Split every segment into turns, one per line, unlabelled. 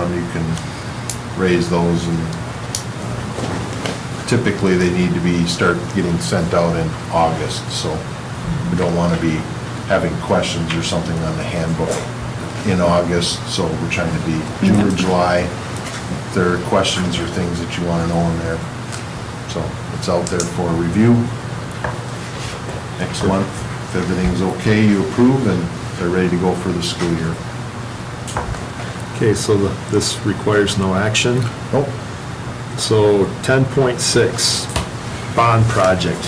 fund, you can raise those and uh, typically they need to be, start getting sent out in August, so we don't want to be having questions or something on the handbook in August, so we're trying to be June or July. If there are questions or things that you want to know in there, so it's out there for review next month. If everything's okay, you approve, and they're ready to go for the school year.
Okay, so the- this requires no action.
Nope.
So 10.6, bond project.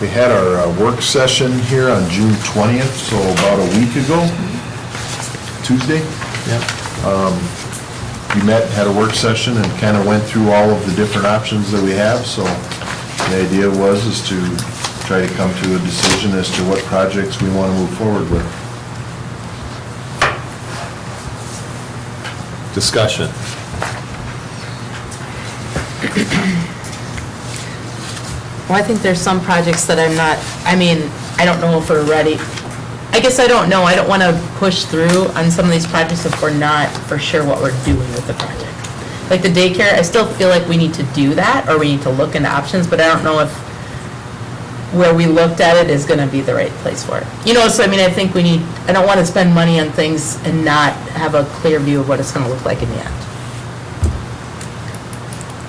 We had our uh, work session here on June 20th, so about a week ago, Tuesday. Um,
Yep.
We met, had a work session, and kind of went through all of the different options that we have, so the idea was is to try to come to a decision as to what projects we want to move forward with.
Discussion.
Well, I think there's some projects that I'm not, I mean, I don't know if we're ready. I guess I don't know, I don't want to push through on some of these projects if we're not for sure what we're doing with the project. Like the daycare, I still feel like we need to do that, or we need to look into options, but I don't know if where we looked at it is going to be the right place for it. You know, so I mean, I think we need, I don't want to spend money on things and not have a clear view of what it's going to look like in the end.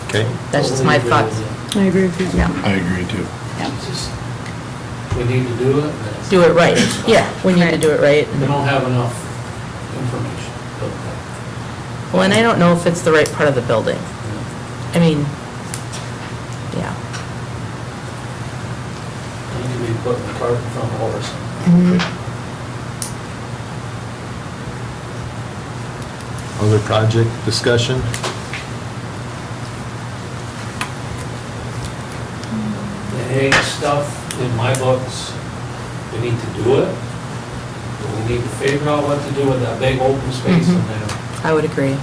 Okay,
That's just my thoughts.
I agree with you. Yeah.
I agree, too.
Just, We need to do it. but
Do it right, yeah, we need to do it right.
We don't have enough information. but,
Well, and I don't know if it's the right part of the building.
uh, you know,
I mean, yeah.
We need to be putting the cart in front of the horse.
Mm-hmm.
other project discussion?
The hay stuff in my books, we need to do it. But we need to figure out what to do with that big open space
Mm-hmm.
in there.
I would agree.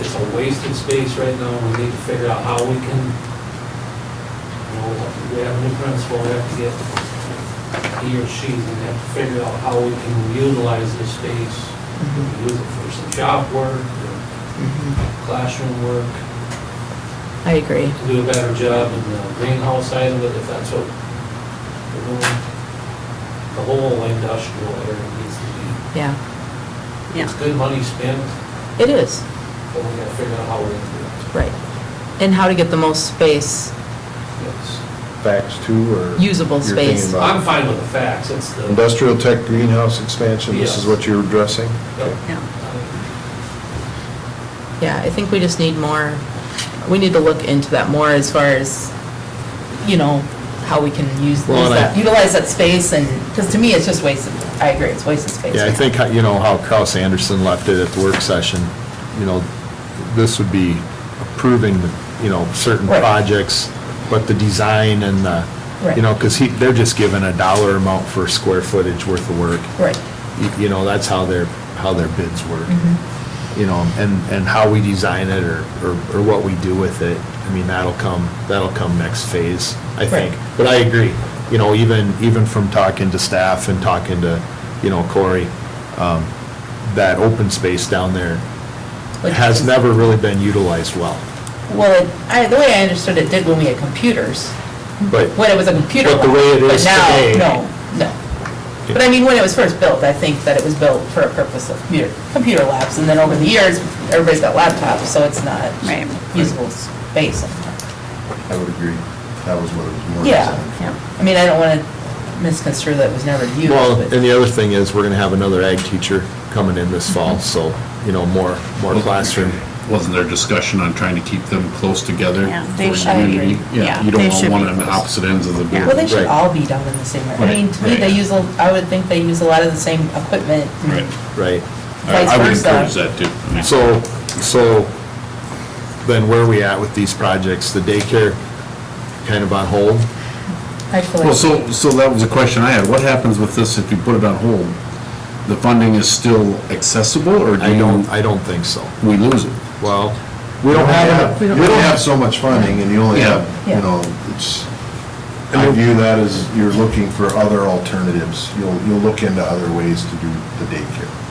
It's a wasted space right now, and we need to figure out how we can, you know, we have to- we have a new principal, we have to get, he or she, we have to figure out how we can utilize this space, use it for some job work, or classroom work,
I agree.
to do a better job in the greenhouse side of it, if that's what we're doing. The whole industrial area needs to be,
Yeah,
it's good money spent,
it is,
but we gotta figure out how we're gonna do it.
right. And how to get the most space,
Yes.
Facts, too, or?
Usable
you're thinking
space.
about-
I'm fine with the facts, it's the.
Industrial tech greenhouse expansion, this is
Yeah.
what you're addressing?
yeah, I think we just need more, we need to look into that more as far as, you know, how we can use, use
Well, and I-
that, utilize that space and, because to me, it's just wasted, I agree, it's wasted space.
Yeah, I think, how- you know, how Kraus Anderson left it at the work session, you know, this would be approving, you know, certain
Right.
projects, but the design and the,
Right.
you know, because he, they're just given a dollar amount for square footage worth of work.
Right,
You- you know, that's how their, how their bids work.
Mhm.
You know, and, and how we design it or, or or what we do with it, I mean, that'll come, that'll come next phase, I think.
Right.
But I agree, you know, even, even from talking to staff and talking to, you know, Corey, um, that open space down there
Like-
has never really been utilized well,
well, it- I, the way I understood it did when we had computers,
but.
when it was a computer.
But the way it
lab,
is today-
But now, no, no. But I mean, when it was first built, I think that it was built for a purpose of computer, computer labs, and then over the years, everybody's got laptops, so it's not
Right.
usable space anymore.
I would agree. That was what it was more
Yeah,
designed for.
I mean, I don't want to misconstrue that it was never used,
Well, and
but,
the other thing is, we're gonna have another ag teacher coming in this
Mm-hmm.
fall, so, you know, more, more classroom
Wasn't there discussion on trying to keep them close together?
Yeah, they
for
should
unity?
be. Yeah,
You
they
don't want
should
one
be
on the
close.
opposite ends of the
Yeah.
well,
board.
they should
Right.
all be down in the same, area. I
Right,
mean, to me,
right.
they use, a- I would think they use a lot of the same equipment. and
Right.
right?
I- I would
Vice versa.
encourage that too. I mean,
So, so then where are we at with these projects? The daycare kind of on hold?
I feel
Well,
like,
so, so that was a question I had. What happens with this if you put it on hold? The funding is still accessible or do
I
you,
don't, I don't think so.
we lose it?
Well,
We don't have,
We
you
don't
don't
have-
have so much funding, and you only
Yeah.
have, you
Yeah.
know, it's, I view that as you're looking for other alternatives. You'll, you'll look into other ways to do the daycare.